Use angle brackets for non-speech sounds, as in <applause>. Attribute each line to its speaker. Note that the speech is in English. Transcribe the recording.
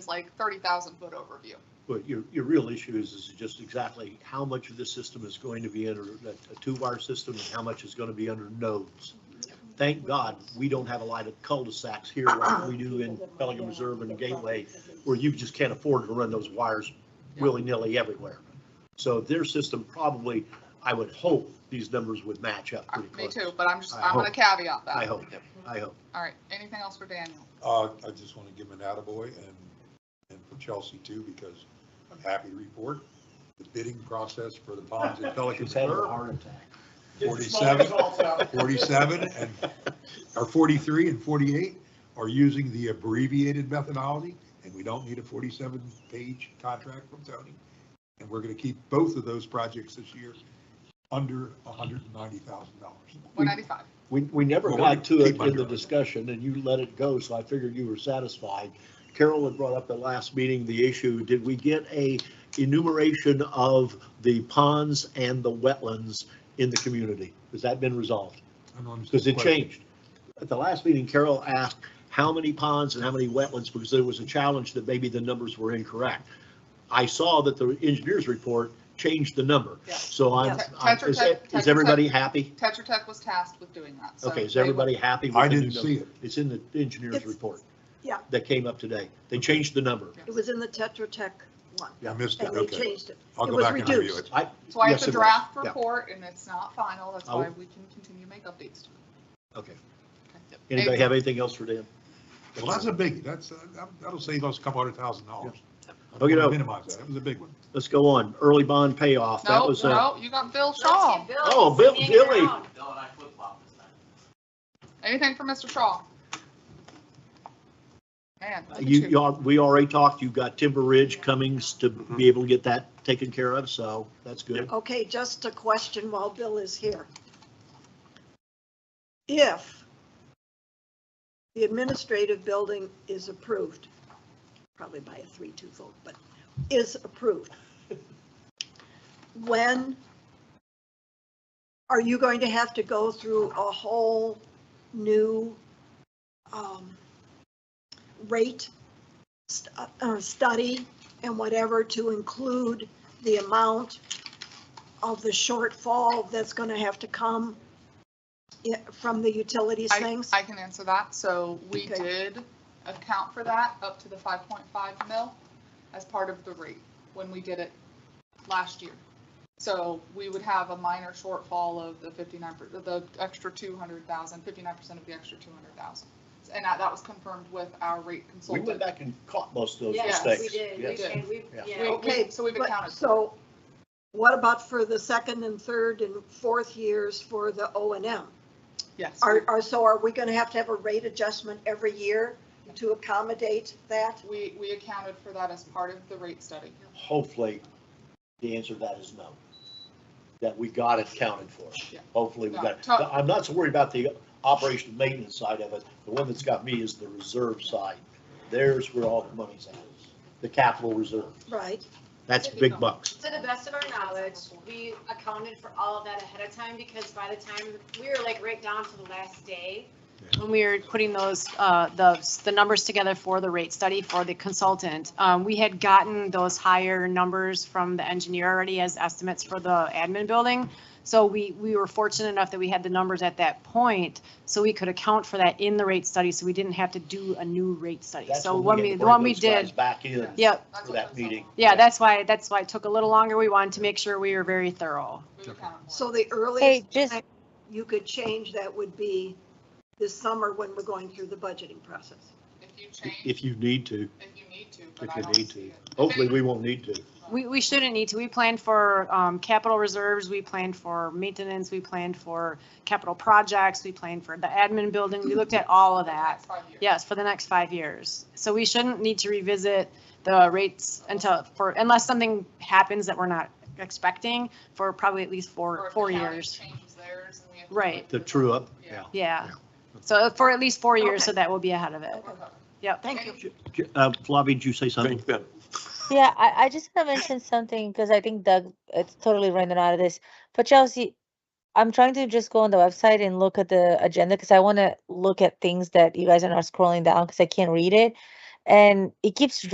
Speaker 1: is like thirty thousand foot overview.
Speaker 2: But your, your real issue is, is just exactly how much of this system is going to be under a a two-wire system and how much is going to be under nodes. Thank God, we don't have a lot of cul-de-sacs here like we do in Pelican Reserve and Gateway, where you just can't afford to run those wires willy-nilly everywhere. So their system probably, I would hope, these numbers would match up pretty
Speaker 1: Uh, Me
Speaker 2: close.
Speaker 1: too, but I'm just,
Speaker 2: I
Speaker 1: I'm gonna
Speaker 2: hope.
Speaker 1: caveat
Speaker 2: I
Speaker 1: that.
Speaker 2: hope, Mm. I hope.
Speaker 1: All right, anything else for Daniel?
Speaker 3: Uh, I just want to give him an attaboy and, and for Chelsea too, because I'm happy to report the bidding process for the ponds
Speaker 2: <laughs>
Speaker 3: at Pelican
Speaker 2: She's having a
Speaker 3: Reserve,
Speaker 2: heart attack.
Speaker 4: Get the small
Speaker 3: 47.
Speaker 4: results out.
Speaker 3: forty-seven and, or forty-three and forty-eight are using the abbreviated methodology, and we don't need a forty-seven page contract from Tony. And we're going to keep both of those projects this year under hundred and ninety thousand dollars.
Speaker 1: One ninety-five.
Speaker 2: We, we never
Speaker 3: Well,
Speaker 2: got
Speaker 3: we're
Speaker 2: to it
Speaker 3: keep
Speaker 2: in the
Speaker 3: under.
Speaker 2: discussion, and you let it go, so I figured you were satisfied. Carol had brought up at last meeting the issue, did we get a enumeration of the ponds and the wetlands in the community? Has that been resolved? Because it changed. At the last meeting, Carol asked how many ponds and how many wetlands, because there was a challenge that maybe the numbers were incorrect. I saw that the engineer's report changed the number,
Speaker 1: Yeah.
Speaker 2: so I'm,
Speaker 1: Yeah.
Speaker 2: I'm- is it-
Speaker 1: Tetra Tech- Tetra Tech.
Speaker 2: is everybody happy?
Speaker 1: Tetra Tech was tasked with doing that, so.
Speaker 2: Okay, is
Speaker 1: they will-
Speaker 2: everybody happy? with
Speaker 3: I
Speaker 2: the new
Speaker 3: didn't
Speaker 2: number?
Speaker 3: see it.
Speaker 2: It's in the engineer's
Speaker 5: It's-
Speaker 2: report.
Speaker 5: yeah.
Speaker 2: That came up today. They changed the number.
Speaker 5: It was in the Tetra Tech one,
Speaker 3: I missed it.
Speaker 5: and they
Speaker 3: Okay.
Speaker 5: changed it.
Speaker 3: I'll
Speaker 5: it
Speaker 3: go
Speaker 5: was
Speaker 3: back and review
Speaker 5: reduced.
Speaker 3: it.
Speaker 2: I,
Speaker 1: That's why
Speaker 2: yes,
Speaker 1: it's
Speaker 2: it
Speaker 1: a
Speaker 2: was.
Speaker 1: draft
Speaker 2: Yeah. Oh.
Speaker 1: report and it's not final, that's
Speaker 2: I
Speaker 1: why
Speaker 2: will-
Speaker 1: we can continue to make updates. to it.
Speaker 2: okay.
Speaker 1: Okay.
Speaker 2: Anybody
Speaker 1: April,
Speaker 2: have anything else for Dan?
Speaker 3: Well, that's a biggie. That's, uh, that- that'll save us a couple hundred thousand dollars. I don't
Speaker 2: Okay,
Speaker 3: wanna
Speaker 2: no.
Speaker 3: Minimize that. That was a big one.
Speaker 2: Let's go on. Early bond payoff. That was,
Speaker 1: No,
Speaker 2: uh,
Speaker 1: no, you got Bill
Speaker 6: Let's
Speaker 1: Shaw.
Speaker 6: get Bill.
Speaker 2: Oh, Bill-
Speaker 6: He's hanging
Speaker 2: Billy.
Speaker 6: around.
Speaker 7: Bill and I flip flop this time.
Speaker 1: Anything for Mr. Shaw? Man. look at
Speaker 2: Uh, you, you, al- we already talked. You've got Timber Ridge Cummings to be able to get that taken care of, so that's good.
Speaker 5: Okay, just a question while Bill is here. If the administrative building is approved, probably by a three-two vote, but is approved, when are you going to have to go through a whole new um, rate st- uh, study and whatever to include the amount of the shortfall that's going to have to come i- from the utilities
Speaker 1: I,
Speaker 5: things?
Speaker 1: I can answer that. So we
Speaker 5: Okay.
Speaker 1: did account for that up to the five point five mil as part of the rate when we did it last year. So we would have a minor shortfall of the fifty-nine, per- the extra 200,000, 59 percent of the extra two hundred thousand. And that, that was confirmed with our rate
Speaker 2: We went
Speaker 1: consultant.
Speaker 2: back and caught most of those
Speaker 6: Yes,
Speaker 2: mistakes.
Speaker 6: we did. We
Speaker 2: Yes.
Speaker 1: Yes.
Speaker 6: did. We-
Speaker 2: Yeah.
Speaker 6: yeah.
Speaker 1: We-
Speaker 5: Okay,
Speaker 1: so we've
Speaker 5: but-
Speaker 1: accounted for it.
Speaker 5: So what about for the second and third and fourth years for the O and M?
Speaker 1: Yes.
Speaker 5: Are, are, so are we going to have to have a rate adjustment every year to accommodate that?
Speaker 1: We, we accounted for that as part of the rate study.
Speaker 2: Hopefully, the answer to that is no. That we got it counted for.
Speaker 1: Yeah.
Speaker 2: Hopefully, we got it.
Speaker 1: No, to-
Speaker 2: I'm not so worried about the operation and maintenance side of it. The one that's got me is the reserve side. There's where all the money's at, the capital reserve.
Speaker 5: Right,
Speaker 2: That's big bucks.
Speaker 6: To the best of our knowledge, we accounted for all of that ahead of time because by the time, we were like right down to the last day when we were putting those, uh, those, the numbers together for the rate study for the consultant. Um, we had gotten those higher numbers from the engineer already as estimates for the admin building. So we, we were fortunate enough that we had the numbers at that point, so we could account for that in the rate study, so we didn't have to do a new rate study.
Speaker 2: That's
Speaker 6: So
Speaker 2: when
Speaker 6: when we,
Speaker 2: had to
Speaker 6: the
Speaker 2: bring
Speaker 6: one we
Speaker 2: those guys
Speaker 6: did,
Speaker 2: Back in.
Speaker 6: yeah,
Speaker 1: That's
Speaker 2: For
Speaker 1: what
Speaker 2: that
Speaker 1: took so
Speaker 2: meeting.
Speaker 1: long.
Speaker 6: yeah, that's why, that's why it took a little longer. We wanted to make sure we were very thorough.
Speaker 1: We've accounted for it.
Speaker 5: so the
Speaker 8: Hey,
Speaker 5: earliest
Speaker 8: just,
Speaker 5: you could change that would be this summer when we're going through the budgeting process.
Speaker 1: If you change,
Speaker 2: If you need to,
Speaker 1: if you need to, but
Speaker 2: if
Speaker 1: I
Speaker 2: you
Speaker 1: don't
Speaker 2: need
Speaker 1: see
Speaker 2: to.
Speaker 1: it.
Speaker 2: Hopefully, we won't need to.
Speaker 6: We, we shouldn't need to. We planned for um, capital reserves, we planned for maintenance, we planned for capital projects, we planned for the admin building. We looked at all of that.
Speaker 1: That's five years.
Speaker 6: Yes, for the next five years. So we shouldn't need to revisit the rates until, for, unless something happens that we're not expecting for probably at least
Speaker 1: Or
Speaker 6: four,
Speaker 1: if the
Speaker 6: four
Speaker 1: county
Speaker 6: years.
Speaker 1: changes theirs and we have to
Speaker 6: Right.
Speaker 2: The true up, yeah.
Speaker 1: Yeah.
Speaker 6: Yeah. So uh, for at least four years, so
Speaker 5: Okay.
Speaker 6: that we'll be ahead of it.
Speaker 1: We're covered.
Speaker 6: Yep.
Speaker 5: Thank you.
Speaker 2: Uh, Flavia, did you say something?
Speaker 8: yeah, I, I just want to mention something because I think Doug, it's totally random out of this. But Chelsea, I'm trying to just go on the website and look at the agenda because I want to look at things that you guys are not scrolling down because I can't read it. And it keeps